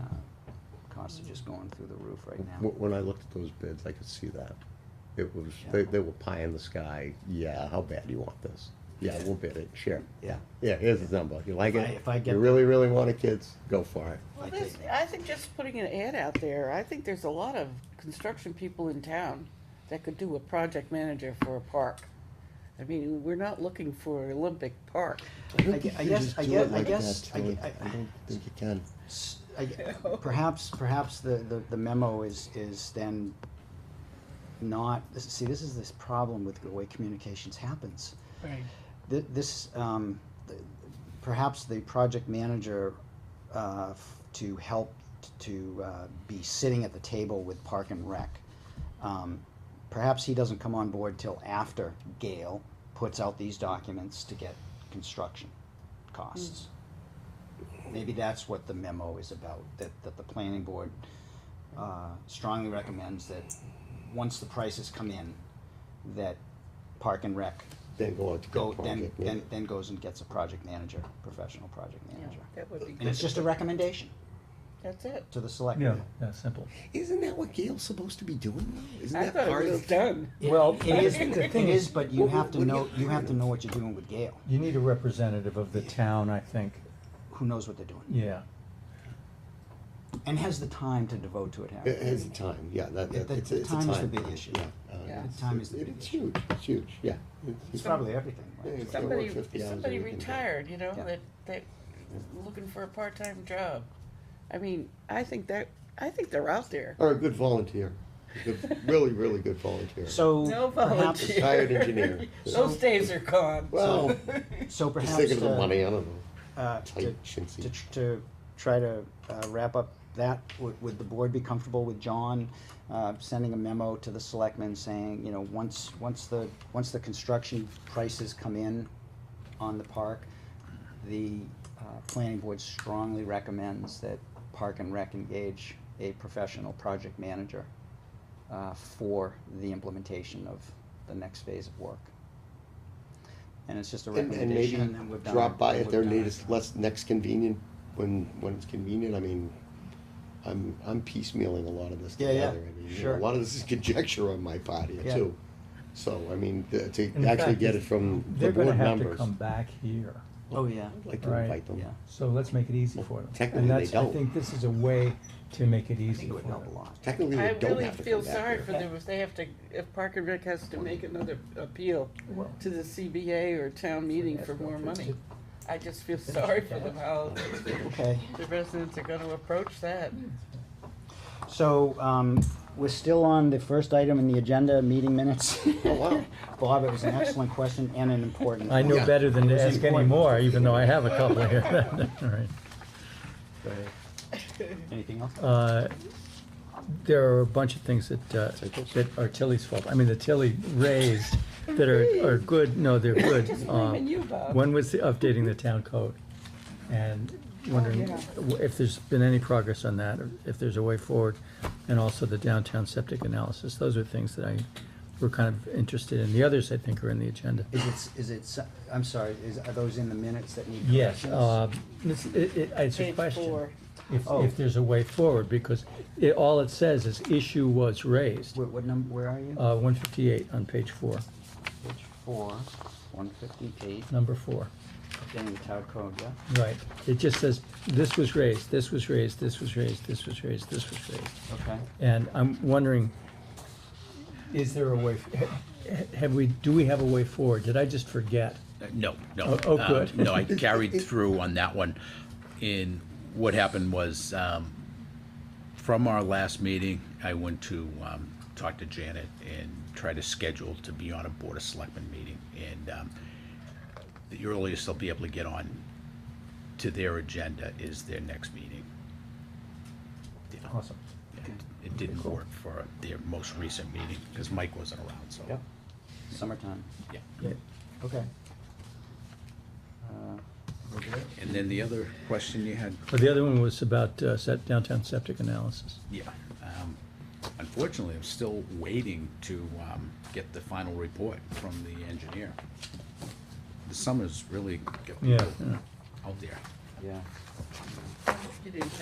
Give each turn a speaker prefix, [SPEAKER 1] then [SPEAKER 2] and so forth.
[SPEAKER 1] uh, costs are just going through the roof right now.
[SPEAKER 2] Wh- When I looked at those bids, I could see that. It was, they, they were pie in the sky, yeah, how bad do you want this? Yeah, we'll bid it, sure, yeah, yeah, here's the number, you like
[SPEAKER 3] If I-
[SPEAKER 2] it?
[SPEAKER 3] if I get
[SPEAKER 2] You
[SPEAKER 3] the-
[SPEAKER 2] really, really want it, kids, go for it.
[SPEAKER 4] Well,
[SPEAKER 3] I
[SPEAKER 4] there's,
[SPEAKER 3] take-
[SPEAKER 4] I think just putting an ad out there, I think there's a lot of construction people in town that could do a project manager for a park. I mean, we're not looking for Olympic Park.
[SPEAKER 3] I gue- I guess, I guess, I guess, I gue-
[SPEAKER 2] I don't think you can.
[SPEAKER 3] s- I gue- perhaps, perhaps the, the- the memo is, is then not, this- see, this is this problem with the way communications happens.
[SPEAKER 5] Right.
[SPEAKER 3] Th- This, um, th- perhaps the project manager, uh, f- to help t- to, uh, be sitting at the table with Park and Rec. um, Perhaps he doesn't come on board till after Gail puts out these documents to get construction costs. Maybe that's what the memo is about, that, that the planning board, uh, strongly recommends that once the prices come in, that Park and Rec
[SPEAKER 2] Then go on to
[SPEAKER 3] go,
[SPEAKER 2] get
[SPEAKER 3] then,
[SPEAKER 2] project.
[SPEAKER 3] then, then goes and gets a project manager, professional project manager.
[SPEAKER 4] That would be good.
[SPEAKER 3] And it's just a recommendation
[SPEAKER 4] That's it.
[SPEAKER 3] to the select.
[SPEAKER 5] Yeah, yeah, simple.
[SPEAKER 2] Isn't that what Gail's supposed to be doing though? Isn't
[SPEAKER 4] I
[SPEAKER 2] that
[SPEAKER 4] thought it
[SPEAKER 2] part
[SPEAKER 4] was
[SPEAKER 2] of?
[SPEAKER 4] done.
[SPEAKER 3] Well, it is,
[SPEAKER 4] the
[SPEAKER 3] it
[SPEAKER 5] thing
[SPEAKER 3] is, but you
[SPEAKER 2] Well,
[SPEAKER 3] have to
[SPEAKER 2] what do
[SPEAKER 3] know,
[SPEAKER 2] you-
[SPEAKER 3] you have to know what you're doing with Gail,
[SPEAKER 5] You need a representative of the town, I think.
[SPEAKER 3] who knows what they're doing,
[SPEAKER 5] Yeah.
[SPEAKER 3] and has the time to devote to it,
[SPEAKER 2] It
[SPEAKER 3] Harry.
[SPEAKER 2] has a time, yeah, that,
[SPEAKER 3] Yeah,
[SPEAKER 2] that,
[SPEAKER 3] the-
[SPEAKER 2] it's,
[SPEAKER 3] the
[SPEAKER 2] it's a time.
[SPEAKER 3] time is the big issue.
[SPEAKER 2] Yeah. uh,
[SPEAKER 4] Yeah.
[SPEAKER 2] it's-
[SPEAKER 3] The time is the
[SPEAKER 2] it-
[SPEAKER 3] big
[SPEAKER 2] It's
[SPEAKER 3] issue.
[SPEAKER 2] huge, it's huge, yeah.
[SPEAKER 3] It's probably everything, right?
[SPEAKER 2] Yeah.
[SPEAKER 4] Somebody,
[SPEAKER 2] work 50 hours
[SPEAKER 4] somebody
[SPEAKER 2] a week and-
[SPEAKER 4] retired, you know,
[SPEAKER 3] Yeah.
[SPEAKER 4] that, that, looking for a part-time job. I mean, I think that, I think they're out there.
[SPEAKER 2] Or a good volunteer, a good- really, really good volunteer.
[SPEAKER 3] So
[SPEAKER 4] No
[SPEAKER 3] perhaps,
[SPEAKER 4] volunteer.
[SPEAKER 2] Retired engineer.
[SPEAKER 4] Those days are gone.
[SPEAKER 2] Well,
[SPEAKER 3] so
[SPEAKER 2] just
[SPEAKER 3] perhaps,
[SPEAKER 2] thinking of the
[SPEAKER 3] uh,
[SPEAKER 2] money, I don't know.
[SPEAKER 3] uh, to,
[SPEAKER 2] Tight, chintzy.
[SPEAKER 3] to, to try to uh, wrap up that, would, would the board be comfortable with John uh, sending a memo to the selectmen saying, you know, once, once the, once the construction prices come in on the park, the uh, planning board strongly recommends that Park and Rec engage a professional project manager uh, for the implementation of the next phase of work. And it's just a
[SPEAKER 2] And, and maybe
[SPEAKER 3] recommendation, and then we're done.
[SPEAKER 2] drop by at
[SPEAKER 3] We're
[SPEAKER 2] their
[SPEAKER 3] done.
[SPEAKER 2] latest, less, next convenient, when, when it's convenient, I mean, I'm, I'm piecemealing a lot of this
[SPEAKER 3] Yeah, yeah,
[SPEAKER 2] together. I mean, you know,
[SPEAKER 3] sure.
[SPEAKER 2] A lot of this is conjecture on my part here
[SPEAKER 3] Yeah.
[SPEAKER 2] too. So, I mean, th-
[SPEAKER 5] In
[SPEAKER 2] to actually
[SPEAKER 5] fact,
[SPEAKER 2] get it from the
[SPEAKER 5] They're gonna
[SPEAKER 2] board
[SPEAKER 5] have to
[SPEAKER 2] members.
[SPEAKER 5] come back here,
[SPEAKER 3] Oh, yeah.
[SPEAKER 2] I'd Like to
[SPEAKER 5] Right.
[SPEAKER 2] invite them.
[SPEAKER 3] Yeah.
[SPEAKER 5] so let's make it easy for them.
[SPEAKER 2] Technically,
[SPEAKER 5] And
[SPEAKER 2] they
[SPEAKER 5] that's- I
[SPEAKER 2] don't.
[SPEAKER 5] think this is a way to make it easy
[SPEAKER 3] It
[SPEAKER 5] for
[SPEAKER 3] would help a
[SPEAKER 5] them.
[SPEAKER 3] lot.
[SPEAKER 2] Technically,
[SPEAKER 4] I
[SPEAKER 2] they don't
[SPEAKER 4] really
[SPEAKER 2] have to come
[SPEAKER 4] feel sorry
[SPEAKER 2] back
[SPEAKER 4] for
[SPEAKER 2] here.
[SPEAKER 4] them if they have to, if Park and Rec has to make another appeal
[SPEAKER 5] Well-
[SPEAKER 4] to the CBA or town meeting for more money. I just feel sorry for them, how
[SPEAKER 3] Okay,
[SPEAKER 4] the residents are gonna approach that.
[SPEAKER 3] so, um, we're still on the first item in the agenda, meeting minutes.
[SPEAKER 2] Oh, wow.
[SPEAKER 3] Bob, it was an excellent question and an important
[SPEAKER 5] I
[SPEAKER 3] one.
[SPEAKER 5] know
[SPEAKER 2] Yeah.
[SPEAKER 5] better than to
[SPEAKER 3] It was
[SPEAKER 5] ask any
[SPEAKER 3] important.
[SPEAKER 5] more, even though I have a couple here. All right.
[SPEAKER 3] Anything else?
[SPEAKER 5] Uh, There are a bunch of things that, uh, that are Tilly's fault. I mean, the Tilly raised that are, are good, no, they're good.
[SPEAKER 4] Just
[SPEAKER 5] Um,
[SPEAKER 2] uh,
[SPEAKER 4] blaming you, Bob.
[SPEAKER 5] One was the updating the town code and wondering
[SPEAKER 4] Oh, yeah.
[SPEAKER 5] w- if there's been any progress on that, or if there's a way forward. And also the downtown septic analysis. Those are things that I were kind of interested in. The others, I think, are in the agenda.
[SPEAKER 3] Is it, is it, so- I'm sorry, is, are those in the minutes that need
[SPEAKER 5] Yes,
[SPEAKER 3] corrections?
[SPEAKER 5] uh, it's, it- it- it's a
[SPEAKER 4] Page
[SPEAKER 5] question.
[SPEAKER 4] four.
[SPEAKER 5] If,
[SPEAKER 3] Oh.
[SPEAKER 5] if there's a way forward, because it, all it says is issue was raised,
[SPEAKER 3] Where, what number, where are you?
[SPEAKER 5] uh, one fifty-eight on page four,
[SPEAKER 3] Page four, one fifty-eight,
[SPEAKER 5] number four.
[SPEAKER 3] getting the town code, yeah?
[SPEAKER 5] Right, it just says, this was raised, this was raised, this was raised, this was raised, this was raised.
[SPEAKER 3] Okay.
[SPEAKER 5] And I'm wondering, is there a way, ha- have we, do we have a way forward? Did I just forget?
[SPEAKER 6] Uh, No, no.
[SPEAKER 5] Oh, oh,
[SPEAKER 6] Um,
[SPEAKER 5] good.
[SPEAKER 6] No, I carried through on that one. And what happened was, um, from our last meeting, I went to, um, talk to Janet and try to schedule to be on a Board of Selectmen meeting. And, um, the earliest they'll be able to get on to their agenda is their next meeting.
[SPEAKER 5] Awesome.
[SPEAKER 6] And It didn't work for their most recent meeting, because Mike wasn't around, so.
[SPEAKER 3] Yep. Summertime,
[SPEAKER 6] Yeah.
[SPEAKER 3] okay. Uh,
[SPEAKER 6] And then the other question you had
[SPEAKER 5] But the other one was about, uh, set downtown septic analysis.
[SPEAKER 6] Yeah. um, Unfortunately, I'm still waiting to um, get the final report from the engineer. The summer's really getting
[SPEAKER 5] Yeah, yeah.
[SPEAKER 6] out there.
[SPEAKER 3] Yeah.
[SPEAKER 4] You didn't